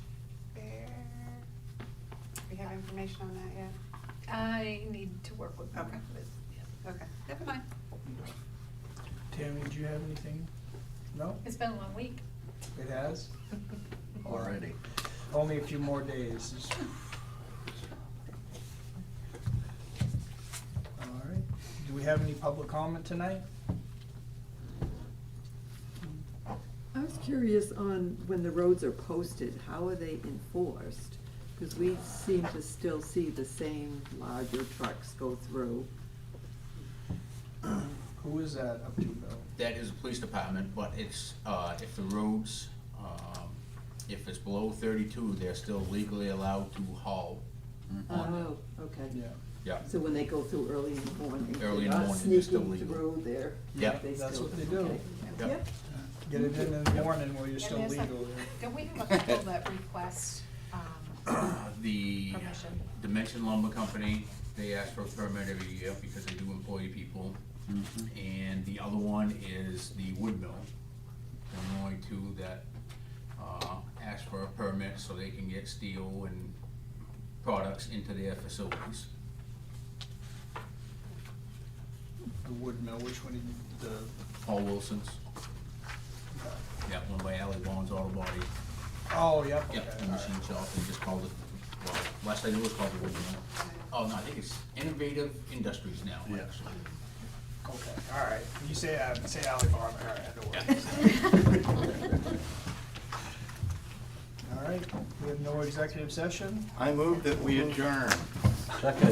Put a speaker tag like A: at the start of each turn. A: information on that yet?
B: I need to work with.
A: Okay.
B: yeah.
A: Okay, never mind.
C: Tammy, do you have anything? No?
B: It's been a long week.
C: It has?
D: already.
C: Only a few more days. All right. Do we have any public comment tonight?
E: I was curious on when the roads are posted, how are they enforced? Because we seem to still see the same larger trucks go through.
C: Who is that up to, Bill?
D: That is a police department, but it's, uh, if the roads, um, if it's below thirty-two, they're still legally allowed to haul on them.
E: Oh, okay.
C: Yeah.
D: Yeah,
E: So when they go through early in the morning, they're
D: Early in the
E: not
D: morning, they're still
E: sneaking
D: legal.
E: through there.
D: Yeah.
E: They
C: That's
E: still-
C: what they do.
E: okay.
D: Yeah.
E: Yep.
C: Get it in in the morning while you're
B: And
C: still
B: there's a-
C: legal.
B: Don't we have a couple that request, um,
D: Uh, The
B: Permission.
D: Dimension Lumber Company, they ask for a permit every year because they do employ people. And the other one is the wood mill. They're the only two that, uh, ask for a permit so they can get steel and products into their facilities.
C: The wood mill, which one, did the,
D: Paul Wilson's, yeah, one by Ally Bond's Auto Body.
C: oh, yep, okay.
D: Yeah, the machine shop, they just called it, well, last I knew it was called the wood mill. Oh, no, I think it's Innovative Industries now,
F: Yeah.
D: actually.
C: all right. Okay, all right. You say, uh, say Ally Farm, all right, I know what it is.
B: um,
C: All right, we have no executive session.
F: I move that we adjourn.